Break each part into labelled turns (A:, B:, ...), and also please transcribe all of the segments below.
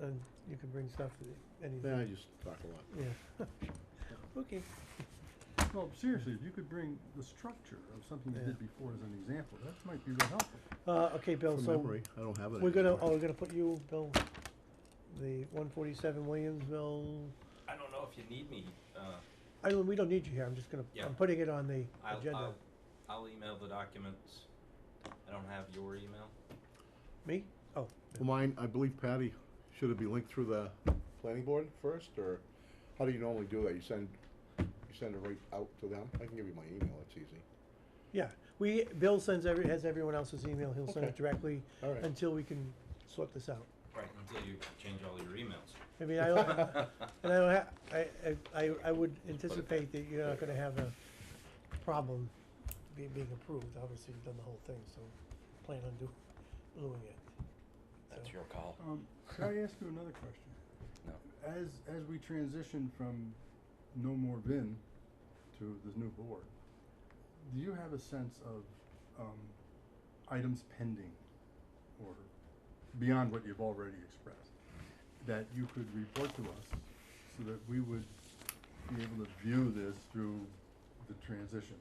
A: then you can bring stuff to the, anything,
B: Then I just talk a lot.
A: yeah. Okay,
C: No, seriously, if you could bring the structure of something you
A: Yeah.
C: did before as an example, that might be real helpful.
A: uh, okay, Bill,
B: From
A: so.
B: memory, I don't have it.
A: We're gonna, oh,
B: anymore.
A: we're gonna put you, Bill, the one forty-seven Williamsville,
D: I don't know if you need me, uh,
A: I, don't- we don't need you here, I'm just gonna,
D: Yeah.
A: I'm putting it on the
D: I'll,
A: agenda.
D: I'll, I'll email the documents. I don't have your email.
A: Me? Oh,
B: Well, Mine, I believe Patty, should it be linked through the planning board first, or how do you normally do that? You send, you send it right out to them? I can give you my email, it's easy.
A: yeah, we, Bill sends every, has everyone else's email, he'll send it
B: Okay.
A: directly
B: All right.
A: until we can sort this out.
D: Right. Until you change all your emails.
A: I mean, I don't, and I don't ha- I, I, I- I would anticipate that you're not gonna have a problem be, being approved, obviously you've done the whole thing, so plan on do, doing it. So-
D: your call.
C: Um, could I ask you another question?
D: No.
C: As, as we transition from no more VIN to this new board, do you have a sense of, um, items pending or beyond what you've already expressed? That you could report to us so that we would be able to view this through the transition?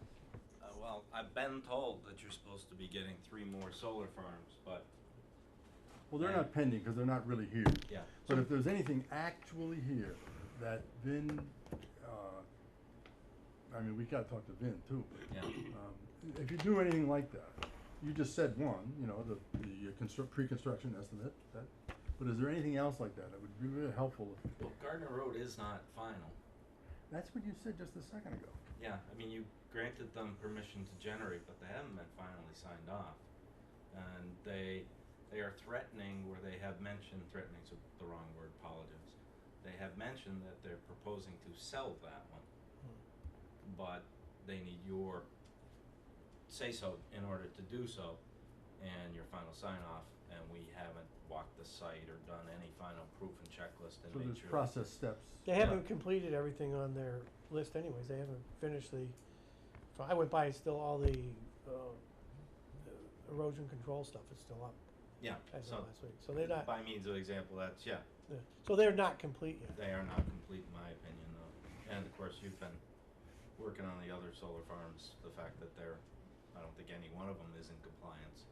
D: Uh, well, I've been told that you're supposed to be getting three more solar farms, but
C: Well, they're not pending because they're not really here.
D: yeah.
C: But if there's anything actually here that Vin, uh, I mean, we gotta talk to Vin too. but,
D: Yeah.
C: um, If you do anything like that, you just said one, you know, the, the construct, pre-construction estimate, that, but is there anything else like that? It would be really helpful if,
D: Well, Gardner Road is not final.
C: that's what you said just a second ago.
D: Yeah, I mean, you granted them permission to generate, but they haven't been finally signed off. And they, they are threatening, where they have mentioned, threatening's the wrong word, apologies. They have mentioned that they're proposing to sell that one.
A: Hmm.
D: But they need your say-so in order to do so, and your final sign-off, and we haven't walked the site or done any final proof and checklist and
C: So
D: made
C: there's
D: sure. that-
C: process steps.
A: They
D: Yeah.
A: haven't completed everything on their list anyways, they haven't finished the, so I went by, it's still all the, uh, the erosion control stuff is still up
D: Yeah,
A: as of
D: so,
A: last week, so they're not,
D: by means of example, that's, yeah,
A: yeah. so they're not complete yet.
D: They are not complete, in my opinion, though. And of course, you've been working on the other solar farms, the fact that they're, I don't think any one of them is in compliance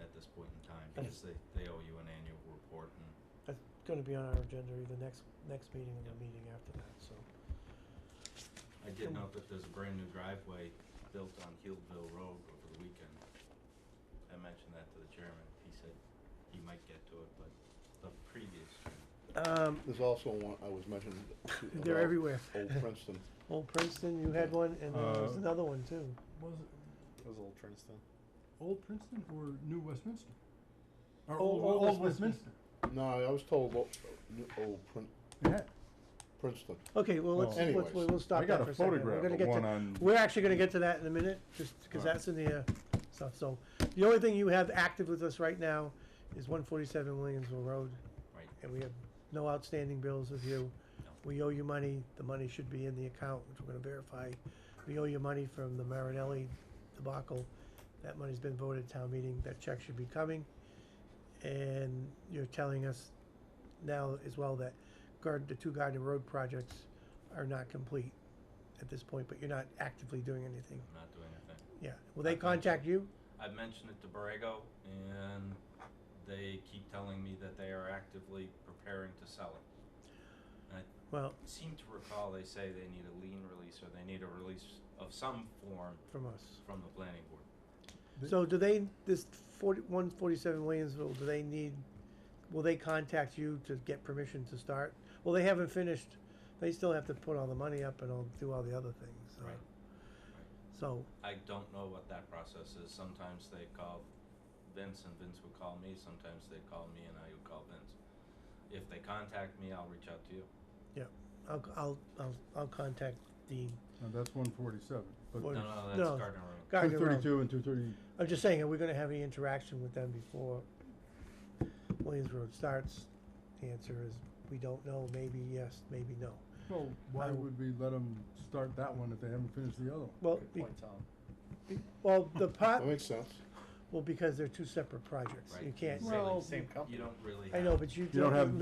D: at this point in time,
A: But-
D: because they, they owe you an annual report and,
A: That's gonna be on our agenda either next, next meeting or
D: Yep.
A: the meeting after that, so.
D: I did note that there's a brand new driveway built on Healdville Road over the weekend. I mentioned that to the chairman, he said he might get to it, but the previous,
A: Um,
B: There's also one, I was mentioned.
A: They're
B: about
A: everywhere.
B: Old Princeton.
A: Old Princeton, you had one, and then there was
C: Uh,
A: another one too.
C: Was it
E: That was Old Princeton.
C: Old Princeton or New Westminster? Or
A: Old-
C: Old,
A: Old
C: Old
A: Westminster.
C: Westminster?
B: No, I was told, o- new- old Prin-
C: Yeah,
B: Princeton.
A: Okay, well, let's,
C: Well,
A: let's,
B: anyways,
A: we'll we'll stop
C: I got
A: that for
C: a
A: a second. We're
C: photograph
A: gonna
C: of
A: get to-
C: one on-
A: We're actually gonna get to that in a minute, just because
C: Alright.
A: that's in the, uh, stuff, so, the only thing you have active with us right now is one forty-seven Williamsville Road,
D: right,
A: and we have no outstanding bills with you. We owe you money, the money should be in the account, which we're gonna verify. We owe you money from the Marinelli debacle, that money's been voted at town meeting, that check should be coming. And you're telling us now as well that guard, the two Gardner Road projects are not complete at this point, but you're not actively doing anything,
D: I'm not doing anything.
A: yeah. Will they contact you?
D: I've mentioned it to Borrego, and they keep telling me that they are actively preparing to sell it.
A: Well,
D: Seem to recall they say they need a lien release or they need a release of some form
A: from us.
D: from the planning board.
C: They-
A: So do they, this forty, one forty-seven Williamsville, do they need, will they contact you to get permission to start? Well, they haven't finished, they still have to put all the money up and all, do all the other things, so.
D: Right.
A: So,
D: I don't know what that process is. Sometimes they call Vince and Vince would call me. Sometimes they call me and I would call Vince. If they contact me, I'll reach out to you.
A: I'll, I'll, I'll, I'll contact Dean.
C: no, that's one forty-seven, but
A: What-
D: No,
A: Or-
D: no, that's
A: no.
D: Gardner Road.
C: two
A: Gardner Road.
C: thirty-two and two thirty,
A: I'm just saying, are we gonna have any interaction with them before Williams Road starts? The answer is, we don't know, maybe yes, maybe no.
C: Well, why
A: I-
C: would we let them start that one if they haven't finished the other one?
A: Well,
E: Good
A: be-
E: point, Tom.
A: be- well, the pot,
B: That makes sense.
A: well, because they're two separate projects, you
D: Right.
A: can't,
E: Well,
A: I
E: same company.
D: You don't really.
A: know, but you
C: don't have